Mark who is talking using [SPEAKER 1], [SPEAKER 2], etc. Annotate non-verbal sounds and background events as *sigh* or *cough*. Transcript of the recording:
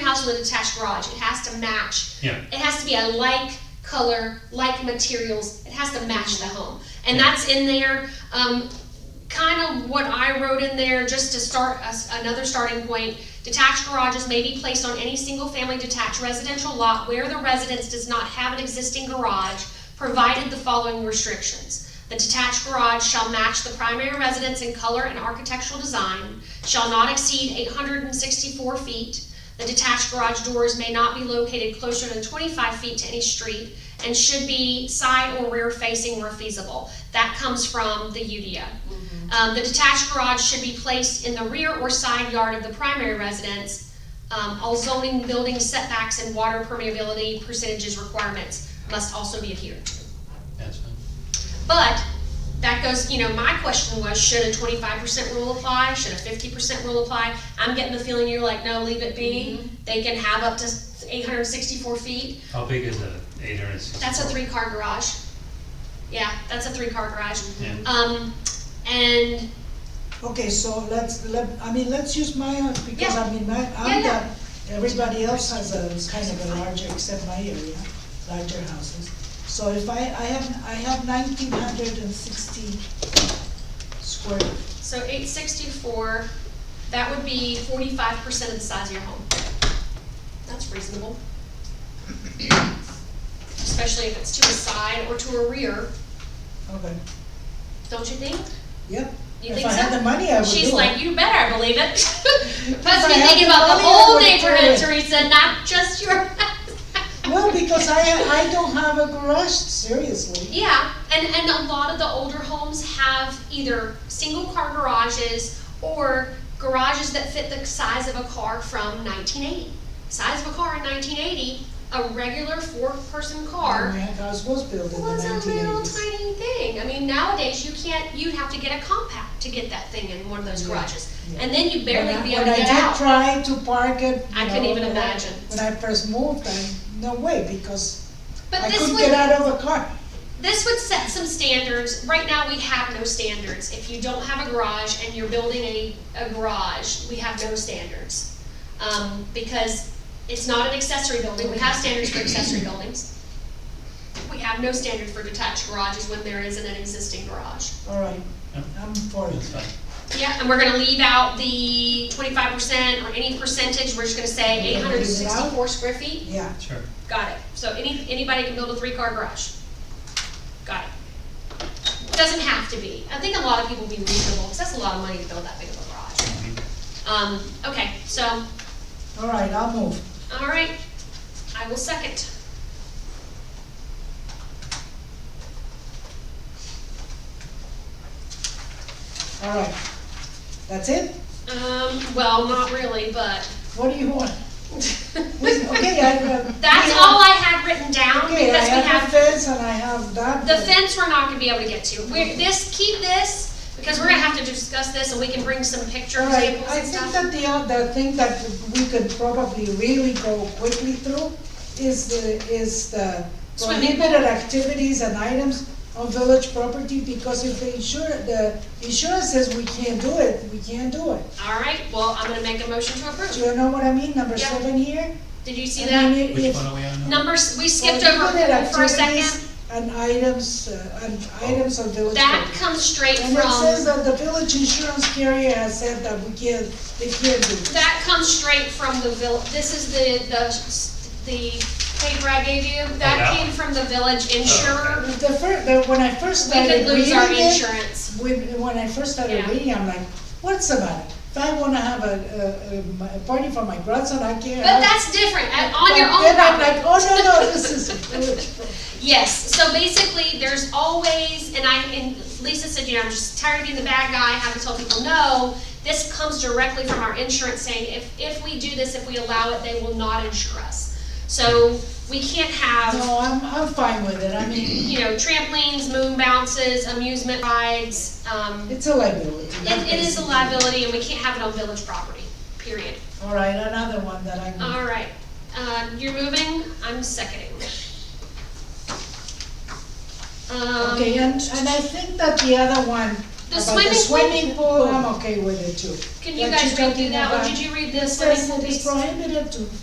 [SPEAKER 1] house with attached garage, it has to match.
[SPEAKER 2] Yeah.
[SPEAKER 1] It has to be a like color, like materials, it has to match the home. And
[SPEAKER 2] Yeah.
[SPEAKER 1] that's in there, um, kind of what I wrote in there, just to start us, another starting point. Detached garages may be placed on any single-family detached residential lot where the residence does not have an existing garage, provided the following restrictions. The detached garage shall match the primary residence in color and architectural design, shall not exceed eight hundred and sixty-four feet. The detached garage doors may not be located closer than twenty-five feet to any street and should be side or rear facing where feasible. That comes from the UDO. Um, the detached garage should be placed in the rear or side yard of the primary residence. Um, all zoning, building setbacks, and water permeability percentages requirements must also be adhered to.
[SPEAKER 2] That's fine.
[SPEAKER 1] But that goes, you know, my question was, should a twenty-five percent rule apply? Should a fifty percent rule apply? I'm getting the feeling you're like, no, leave it be. They can have up to eight hundred sixty-four feet.
[SPEAKER 2] How big is a eight hundred and sixty?
[SPEAKER 1] That's a three-car garage. Yeah, that's a three-car garage.
[SPEAKER 2] Yeah.
[SPEAKER 1] Um, and
[SPEAKER 3] Okay, so let's, let, I mean, let's use my house, because
[SPEAKER 1] Yeah.
[SPEAKER 3] I mean, my,
[SPEAKER 1] Yeah,
[SPEAKER 3] I'm
[SPEAKER 1] yeah.
[SPEAKER 3] got, everybody else has a, is kind of a larger, except my area, larger houses. So if I, I have, I have nineteen hundred and sixty square,
[SPEAKER 1] So eight sixty-four, that would be forty-five percent of the size of your home. That's reasonable. Especially if it's to a side or to a rear,
[SPEAKER 3] okay,
[SPEAKER 1] don't you think?
[SPEAKER 3] yep.
[SPEAKER 1] You
[SPEAKER 3] If
[SPEAKER 1] think
[SPEAKER 3] I had
[SPEAKER 1] so?
[SPEAKER 3] the money, I would do it.
[SPEAKER 1] She's like, you better believe it. *laughs* Must be
[SPEAKER 3] had
[SPEAKER 1] thinking
[SPEAKER 3] the
[SPEAKER 1] about the
[SPEAKER 3] money, I
[SPEAKER 1] whole
[SPEAKER 3] would do
[SPEAKER 1] neighborhood,
[SPEAKER 3] it.
[SPEAKER 1] Teresa, not just your. *laughs*
[SPEAKER 3] Well, because I, I don't have a garage, seriously.
[SPEAKER 1] Yeah, and, and a lot of the older homes have either single car garages or garages that fit the size of a car from nineteen eighty. Size of a car in nineteen eighty, a regular four-person
[SPEAKER 3] My
[SPEAKER 1] car
[SPEAKER 3] house was built in Oh, the
[SPEAKER 1] was a
[SPEAKER 3] nineteen
[SPEAKER 1] little
[SPEAKER 3] eighties.
[SPEAKER 1] tiny thing. I mean, nowadays, you can't, you'd have to get a compact to get that thing in one of those
[SPEAKER 3] Yeah,
[SPEAKER 1] garages.
[SPEAKER 3] yeah.
[SPEAKER 1] And then you'd barely
[SPEAKER 3] When I-
[SPEAKER 1] be able to get out.
[SPEAKER 3] When I did try to park it.
[SPEAKER 1] I
[SPEAKER 3] you
[SPEAKER 1] couldn't
[SPEAKER 3] know,
[SPEAKER 1] even
[SPEAKER 3] when I-
[SPEAKER 1] imagine.
[SPEAKER 3] When I first moved, I, no way, because
[SPEAKER 1] But
[SPEAKER 3] I
[SPEAKER 1] this
[SPEAKER 3] couldn't
[SPEAKER 1] would.
[SPEAKER 3] get out of a car.
[SPEAKER 1] This would set some standards. Right now, we have no standards. If you don't have a garage and you're building a, a garage, we have no standards. Um, because it's not an accessory building. We have standards for accessory buildings. We have no standard for detached garages when there isn't an existing garage.
[SPEAKER 3] All right,
[SPEAKER 2] Yeah.
[SPEAKER 3] I'm for
[SPEAKER 2] That's
[SPEAKER 3] it.
[SPEAKER 2] fine.
[SPEAKER 1] Yeah, and we're gonna leave out the twenty-five percent or any percentage. We're just gonna say eight hundred and sixty-four square feet.
[SPEAKER 3] Yeah,
[SPEAKER 2] Sure.
[SPEAKER 1] Got it. So any, anybody can build a three-car garage. Got it. Doesn't have to be. I think a lot of people would be reasonable, because that's a lot of money to build that big of a garage. Um, okay, so,
[SPEAKER 3] all right, I'll move.
[SPEAKER 1] all right, I will second.
[SPEAKER 3] All right. That's it?
[SPEAKER 1] Um, well, not really, but.
[SPEAKER 3] What do you want?
[SPEAKER 1] *laughs*
[SPEAKER 3] Okay, I have.
[SPEAKER 1] That's all I had written down,
[SPEAKER 3] Okay, I
[SPEAKER 1] because we
[SPEAKER 3] have
[SPEAKER 1] have
[SPEAKER 3] the fence and I have that.
[SPEAKER 1] The fence, we're not gonna be able to get to. We're, this, keep this, because we're gonna have to discuss this, and we can bring some picture
[SPEAKER 3] All right,
[SPEAKER 1] examples
[SPEAKER 3] I
[SPEAKER 1] and
[SPEAKER 3] think
[SPEAKER 1] stuff.
[SPEAKER 3] that the, other thing that we could probably really go quickly through is the, is the
[SPEAKER 1] Swimming.
[SPEAKER 3] prohibited activities and items on village property, because if the insure, the insurance says we can't do it, we can't do it.
[SPEAKER 1] All right, well, I'm gonna make a motion to
[SPEAKER 3] Do
[SPEAKER 1] approve.
[SPEAKER 3] you know what I mean, number
[SPEAKER 1] Yeah.
[SPEAKER 3] seven here?
[SPEAKER 1] Did you see
[SPEAKER 3] And
[SPEAKER 1] that?
[SPEAKER 3] then it-
[SPEAKER 2] Which
[SPEAKER 3] if-
[SPEAKER 2] one are we on now?
[SPEAKER 1] Numbers, we skipped
[SPEAKER 3] Well,
[SPEAKER 1] over
[SPEAKER 3] look at
[SPEAKER 1] for a second.
[SPEAKER 3] activities And items, uh, and items of village.
[SPEAKER 1] That
[SPEAKER 3] property.
[SPEAKER 1] comes straight
[SPEAKER 3] And it says
[SPEAKER 1] from,
[SPEAKER 3] that the village insurance carrier has said that we can't, they can't do. it.
[SPEAKER 1] that comes straight from the vill, this is the, the, the paper I gave you. That
[SPEAKER 2] that
[SPEAKER 1] came from the village insurer.
[SPEAKER 3] The fir, the, when I first
[SPEAKER 1] We
[SPEAKER 3] started
[SPEAKER 1] could
[SPEAKER 3] reading
[SPEAKER 1] lose our
[SPEAKER 3] it,
[SPEAKER 1] insurance.
[SPEAKER 3] when, when I first started
[SPEAKER 1] Yeah.
[SPEAKER 3] reading, I'm like, what's the matter? If I wanna have a, a- a, a party for my grandson, I can't.
[SPEAKER 1] But that's different, uh, on your own
[SPEAKER 3] Then I'm like,
[SPEAKER 1] property.
[SPEAKER 3] oh, no, no,
[SPEAKER 1] *laughs*
[SPEAKER 3] this is village property.
[SPEAKER 1] Yes, so basically, there's always, and I, and Lisa said, you know, I'm just tired of being the bad guy, having to tell people no. This comes directly from our insurance saying, if, if we do this, if we allow it, they will not insure us. So we can't have.
[SPEAKER 3] No, I'm, I'm fine with it, I mean,
[SPEAKER 1] you know, trampolines, moon bounces, amusement rides, um, it,
[SPEAKER 3] it's a liability.
[SPEAKER 1] it is a liability and we can't have it on village property, period.
[SPEAKER 3] All right, another one that I.
[SPEAKER 1] All right, um, you're moving, I'm seconding. Um,
[SPEAKER 3] Okay, and, and I think that the other one,
[SPEAKER 1] The
[SPEAKER 3] about the
[SPEAKER 1] swimming
[SPEAKER 3] swimming
[SPEAKER 1] pool-
[SPEAKER 3] pool, I'm okay with it too.
[SPEAKER 1] can you
[SPEAKER 3] that
[SPEAKER 1] guys
[SPEAKER 3] you're
[SPEAKER 1] redo
[SPEAKER 3] talking
[SPEAKER 1] that, or
[SPEAKER 3] about-
[SPEAKER 1] did you read this?
[SPEAKER 3] It says
[SPEAKER 1] Let me
[SPEAKER 3] it is
[SPEAKER 1] see.
[SPEAKER 3] prohibited to